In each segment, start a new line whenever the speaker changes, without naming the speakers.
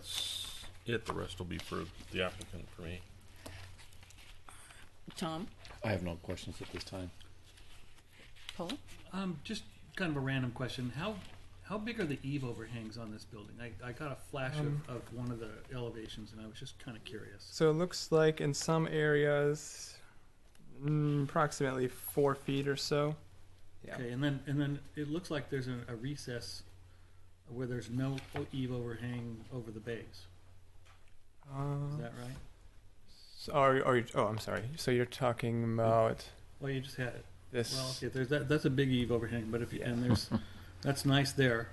that's it. The rest will be for the applicant for me.
Tom,
I have no questions at this time.
Paul?
Um, just kind of a random question. How how big are the eave overhangs on this building? I, I got a flash
Um,
of, of one of the elevations, and I was just kind of curious.
So it looks like in some areas, mm, approximately four feet or so. Yeah.
Okay, and then and then it looks like there's a, a recess where there's no o- eave overhang over the bays. Is
Uh,
that right?
so are, are you, oh, I'm sorry. So you're talking about
Well, you just had it.
this?
Well, okay, there's that. That's a big eave overhang, but if you,
Yeah.
and there's that's nice there.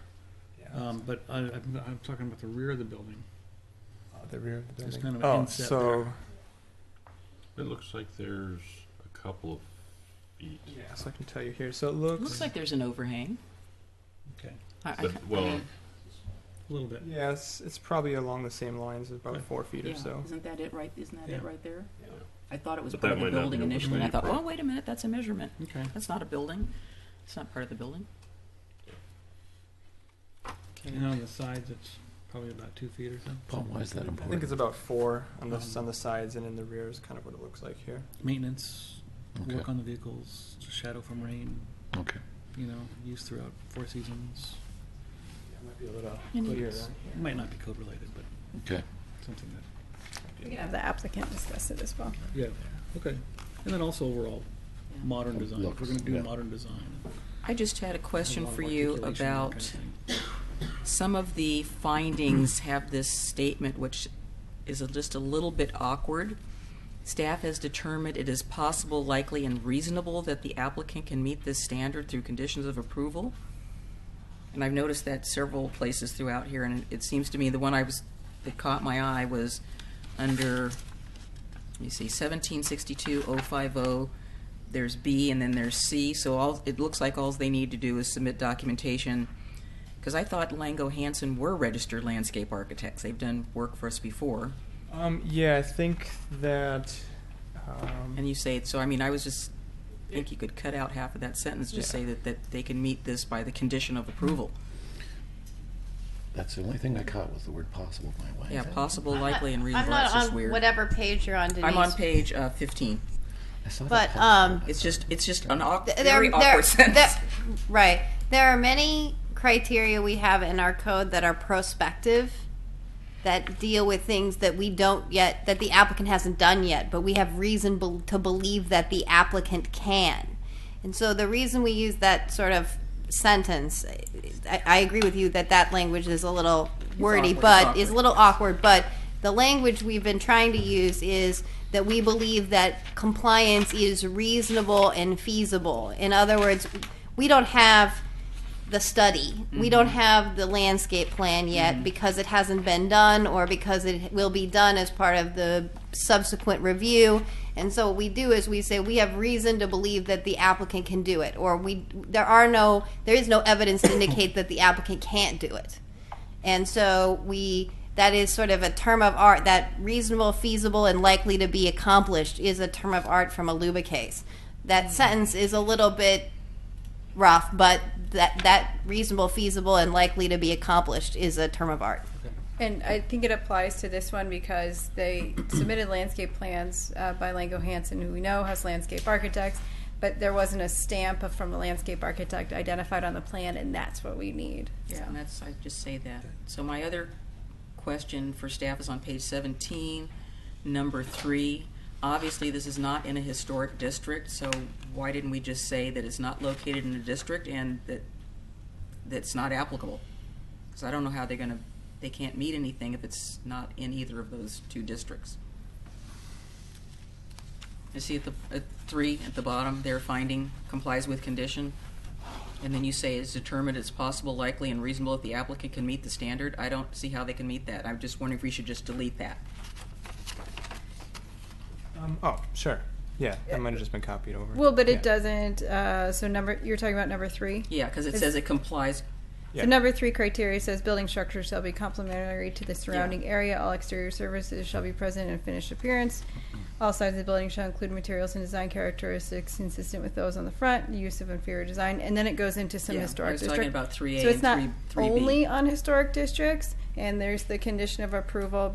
yeah,
Um, but I, I'm, I'm talking about the rear of the building.
uh, the rear of the
there's
building.
kind of an
oh,
inset
so
It looks like there's a couple of feet.
yeah, so I can tell you here. So it looks,
Looks like there's an overhang.
Okay,
I, I,
But, well,
a little bit.
yes, it's probably along the same lines, about
Okay.
four feet
yeah,
or so.
Isn't that it right? Isn't that it
Yeah.
right there?
Yeah.
I thought it was
But
part
that
of the
might not
building
be
initially. and I thought,
overlaid.
oh, wait a minute, that's a measurement.
Okay.
That's not a building. It's not part of the building. Okay.
And on the sides, it's probably about two feet or so.
Paul, why is that
I think
important?
it's about four on the
Um,
on the sides and in the rear is kind of what it looks like here.
Maintenance,
Okay.
work on the vehicles, shadow from rain,
Okay.
you know, used throughout four seasons.
Yeah, it might be a little
And
clearer
it's-
than
It
here.
might not be code related, but
Okay.
something that,
We can have the applicant discuss it as well.
yeah, okay. And then also overall,
Yeah.
modern design, if we're gonna
Looks,
do
Oh, yeah.
modern design.
I just had a question
a lot
for
of
you
articulation, that
about.
kind of thing.
Some of the findings have this statement, which is a- just a little bit awkward. Staff has determined it is possible, likely, and reasonable that the applicant can meet this standard through conditions of approval. And I've noticed that several places throughout here, and it seems to me the one I was, that caught my eye was under, let me see, seventeen sixty-two oh five oh, there's B, and then there's C, so all, it looks like all they need to do is submit documentation because I thought Lango Hansen were registered landscape architects. They've done work for us before.
Um, yeah, I think that. Um,
And you say it, so I mean, I was just, I think you could cut out half of that sentence, just
Yeah.
say that, that they can meet this by the condition of approval.
That's the only thing I caught was the word possible my way.
Yeah, possible,
I'm not-
likely, and reasonable.
I'm not
That's just
on
weird.
whatever page you're on, Denise.
I'm on page uh, 15.
I saw that
But
possible.
um,
It's just, it's just an awk-
th-
very
there, there,
awkward sentence.
there, right. There are many criteria we have in our code that are prospective, that deal with things that we don't yet, that the applicant hasn't done yet, but we have reason bel to believe that the applicant can. And so the reason we use that sort of sentence, I, I agree with you that that language is a little wordy,
awkward,
but
it's
is a
awkward.
little awkward. But the language we've been trying to use is that we believe that compliance is reasonable and feasible. In other words, we don't have the study. We don't have the landscape plan yet because it hasn't been done or because it will be done as part of the subsequent review. And so what we do is we say we have reason to believe that the applicant can do it or we there are no there is no evidence to indicate that the applicant can't do it. And so we that is sort of a term of art that reasonable, feasible, and likely to be accomplished is a term of art from a Luba case. That sentence is a little bit rough, but that that reasonable, feasible, and likely to be accomplished is a term of art.
And I think it applies to this one because they submitted landscape plans uh, by Lango Hansen, who we know has landscape architects, but there wasn't a stamp of- from a landscape architect identified on the plan, and that's what we need.
Yeah, and that's, I just say that. So my other question for staff is on page seventeen, number three. Obviously, this is not in a historic district, so why didn't we just say that it's not located in a district and that, that's not applicable? Because I don't know how they're gonna, they can't meet anything if it's not in either of those two districts. You see at the, at three, at the bottom, their finding complies with condition. And then you say it's determined it's possible, likely, and reasonable if the applicant can meet the standard. I don't see how they can meet that. I'm just wondering if we should just delete that.
um, oh, sure. Yeah, that might have just been copied over.
Well, but
Yeah.
it doesn't, uh, so number, you're talking about number three?
Yeah, because it
Is-
says it complies.
Yeah.
So number three criteria says building structures shall be complementary to the surrounding
Yeah.
area. All exterior services shall be present in finished appearance. All sides of the building shall include materials and design characteristics consistent with those on the front. Use of inferior design, and then it goes into some
Yeah, I
historic
was
district.
talking about 3A
so it's
and
not
3- 3B.
only on historic districts. And there's the condition of approval